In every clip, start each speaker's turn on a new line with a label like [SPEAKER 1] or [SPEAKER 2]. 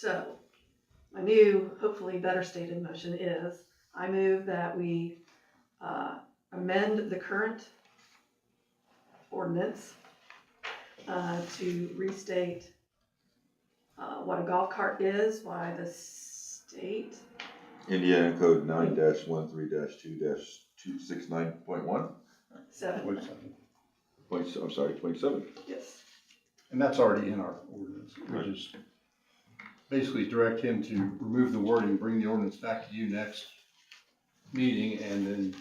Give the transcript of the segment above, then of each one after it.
[SPEAKER 1] So, my new, hopefully better stated motion is, I move that we uh, amend the current ordinance uh, to restate uh, what a golf cart is, why the state,
[SPEAKER 2] Indiana Code nine dash one three dash two dash two six nine point one,
[SPEAKER 1] seven,
[SPEAKER 3] Twenty-seven.
[SPEAKER 2] point, s- I'm sorry, twenty-seven.
[SPEAKER 1] yes,
[SPEAKER 3] And that's already in our ordinance, which
[SPEAKER 2] Right.
[SPEAKER 3] is basically direct him to remove the wording, bring the ordinance back to you next meeting, and then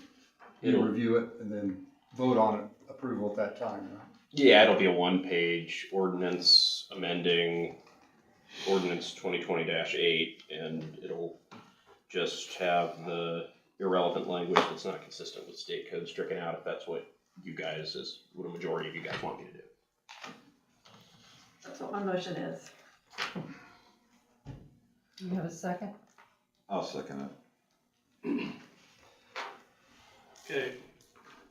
[SPEAKER 3] you
[SPEAKER 4] It'll-
[SPEAKER 3] review it, and then vote on it, approval at that time, right?
[SPEAKER 4] Yeah, it'll be a one-page ordinance amending ordinance twenty twenty eight, and it'll just have the irrelevant language that's not consistent with state code stricken out, if that's what you guys, is what a majority of you guys want me to do.
[SPEAKER 1] that's what my motion is.
[SPEAKER 5] You have a second?
[SPEAKER 2] I'll second it.
[SPEAKER 6] Okay,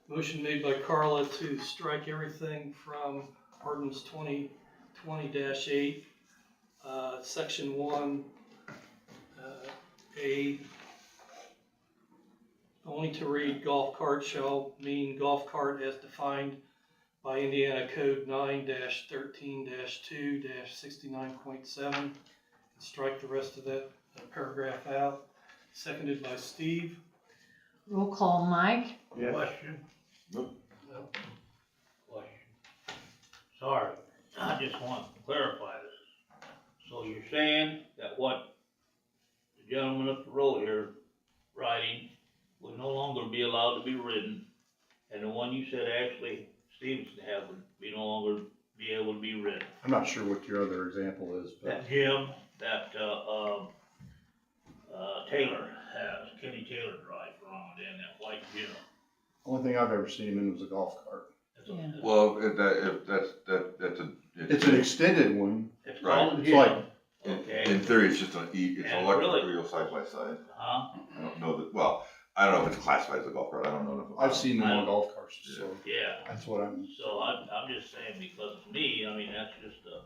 [SPEAKER 6] motion made by Carla to strike everything from ordinance twenty twenty eight, uh, section one, uh, A. Only to read golf cart shall mean golf cart as defined by Indiana Code nine thirteen two sixty-nine point seven. Strike the rest of that uh, paragraph out, seconded by Steve.
[SPEAKER 5] Roll call, Mike?
[SPEAKER 7] Question?
[SPEAKER 2] Nope.
[SPEAKER 6] No.
[SPEAKER 7] Question. Sorry, I just want to clarify this. So you're saying that what the gentleman up the road here riding would no longer be allowed to be ridden, and the one you said Ashley Stevenson had would be no longer be able to be ridden?
[SPEAKER 3] I'm not sure what your other example is, but
[SPEAKER 7] That Jim, that, uh, uh, uh, Taylor has, Kenny Taylor drives around in that white Jim.
[SPEAKER 3] only thing I've ever seen him in was a golf cart.
[SPEAKER 7] It's a-
[SPEAKER 5] Yeah.
[SPEAKER 2] Well, if that, if that's, that, that's a.
[SPEAKER 3] It's an extended one,
[SPEAKER 7] It's
[SPEAKER 2] Right.
[SPEAKER 7] called a
[SPEAKER 3] It's like-
[SPEAKER 7] Jim. Okay.
[SPEAKER 2] In in theory, it's just an E, it's an
[SPEAKER 7] And
[SPEAKER 2] electric
[SPEAKER 7] really-
[SPEAKER 2] wheel side by side.
[SPEAKER 7] Huh?
[SPEAKER 2] I don't know that, well, I don't know if it's classified as a golf cart, I don't know enough about it.
[SPEAKER 3] I've seen them on golf carts, so
[SPEAKER 7] Yeah,
[SPEAKER 3] that's what I'm,
[SPEAKER 7] so I'm, I'm just saying because to me, I mean, that's just a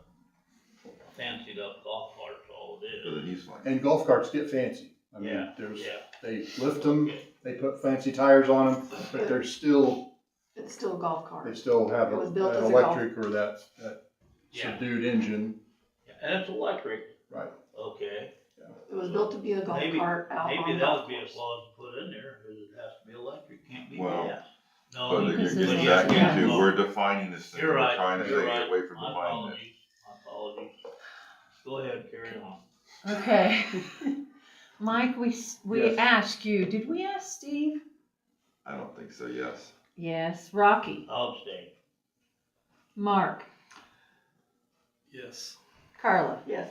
[SPEAKER 7] fancied up golf cart, that's all it
[SPEAKER 2] But
[SPEAKER 7] is.
[SPEAKER 2] it needs one.
[SPEAKER 3] and golf carts get fancy. I mean,
[SPEAKER 7] Yeah,
[SPEAKER 3] there's,
[SPEAKER 7] Yeah,
[SPEAKER 3] they lift them, they put fancy tires on them, but they're still
[SPEAKER 1] It's still a golf
[SPEAKER 3] They
[SPEAKER 1] cart.
[SPEAKER 3] still have
[SPEAKER 1] It
[SPEAKER 3] a-
[SPEAKER 1] was built as
[SPEAKER 3] an
[SPEAKER 1] a golf-
[SPEAKER 3] electric or that, that
[SPEAKER 7] Yeah.
[SPEAKER 3] subdued engine,
[SPEAKER 7] Yeah, and it's electric,
[SPEAKER 3] right?
[SPEAKER 7] okay,
[SPEAKER 1] It was built to be a golf
[SPEAKER 7] Maybe-
[SPEAKER 1] cart out
[SPEAKER 7] maybe
[SPEAKER 1] on
[SPEAKER 7] that
[SPEAKER 1] golf
[SPEAKER 7] would be a
[SPEAKER 1] course.
[SPEAKER 7] clause to put in there, cause it has to be electric, can't be
[SPEAKER 2] Well,
[SPEAKER 7] gas. No,
[SPEAKER 2] But then
[SPEAKER 7] you-
[SPEAKER 2] you're
[SPEAKER 5] Because it's
[SPEAKER 2] getting
[SPEAKER 5] a-
[SPEAKER 2] back
[SPEAKER 5] yeah.
[SPEAKER 2] into, we're defining this thing,
[SPEAKER 7] You're
[SPEAKER 2] we're
[SPEAKER 7] right,
[SPEAKER 2] trying to
[SPEAKER 7] you're
[SPEAKER 2] take
[SPEAKER 7] right.
[SPEAKER 2] it away from
[SPEAKER 7] My
[SPEAKER 2] defining it.
[SPEAKER 7] apologies, my apologies, go ahead, carry on.
[SPEAKER 5] Okay. Mike, we, s- we
[SPEAKER 3] Yes.
[SPEAKER 5] asked you, did we ask Steve?
[SPEAKER 2] I don't think so, yes.
[SPEAKER 5] Yes. Rocky,
[SPEAKER 7] I'll abstain.
[SPEAKER 5] Mark,
[SPEAKER 6] Yes.
[SPEAKER 5] Carla.
[SPEAKER 1] Yes.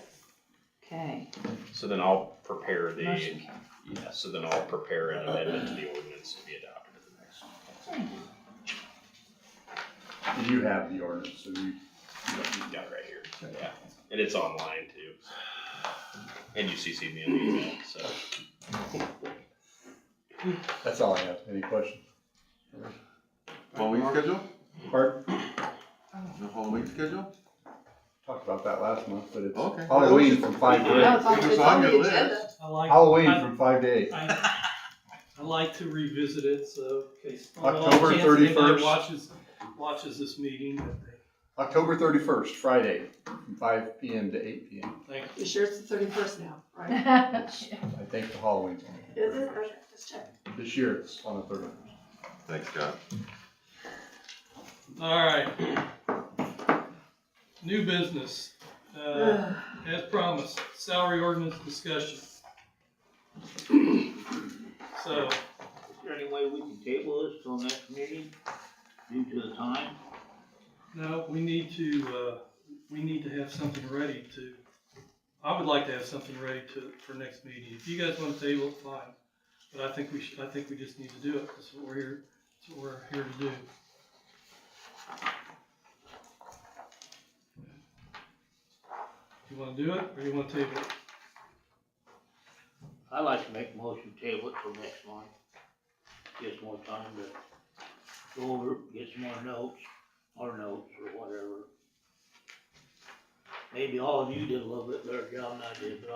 [SPEAKER 5] Okay.
[SPEAKER 4] So then I'll prepare the,
[SPEAKER 5] Motion carries.
[SPEAKER 4] yeah, so then I'll prepare an amendment to the ordinance to be adopted at the next.
[SPEAKER 5] Thank you.
[SPEAKER 3] And you have the ordinance, so you,
[SPEAKER 4] You've got it right here, yeah, and it's online too. And you CC me on the email, so.
[SPEAKER 3] that's all I have. Any questions?
[SPEAKER 2] Halloween schedule?
[SPEAKER 3] Bart,
[SPEAKER 2] No Halloween schedule?
[SPEAKER 3] talked about that last month, but it's
[SPEAKER 2] Okay.
[SPEAKER 3] Halloween from five
[SPEAKER 1] Oh,
[SPEAKER 3] to
[SPEAKER 1] it's on-
[SPEAKER 2] It was
[SPEAKER 1] it's
[SPEAKER 2] on
[SPEAKER 1] on the
[SPEAKER 2] your list.
[SPEAKER 1] agenda.
[SPEAKER 6] I
[SPEAKER 3] eight.
[SPEAKER 6] like.
[SPEAKER 3] Halloween
[SPEAKER 6] I-
[SPEAKER 3] from five to eight.
[SPEAKER 6] I I like to revisit it, so. in case- on off
[SPEAKER 3] October
[SPEAKER 6] chance anybody
[SPEAKER 3] 31st.
[SPEAKER 6] Watches, watches this meeting, that they-
[SPEAKER 3] October thirty-first, Friday, from five PM to eight PM.
[SPEAKER 6] thank
[SPEAKER 1] You sure it's the thirty-first now, right?
[SPEAKER 3] It's- I think the Halloween's on. the
[SPEAKER 1] Is it?
[SPEAKER 3] 31st.
[SPEAKER 1] Okay, just check.
[SPEAKER 3] This year it's on the thirty-first.
[SPEAKER 2] Thanks, Scott.
[SPEAKER 6] you. All right. New business,
[SPEAKER 1] 呃
[SPEAKER 6] uh, as promised, salary ordinance discussion. So,
[SPEAKER 7] Is there any way we can table this till next meeting due to the time?
[SPEAKER 6] no, we need to, uh, we need to have something ready to, I would like to have something ready to, for next meeting. If you guys want to table, it, fine, but I think we should, I think we just need to do it, that's what we're here, that's what we're here to do. You wanna do it, or you wanna table it?
[SPEAKER 7] I like to make a motion to table it till next month. Gives more time to go over, get some more notes, more notes or whatever. maybe all of you did a little bit better job than I did, but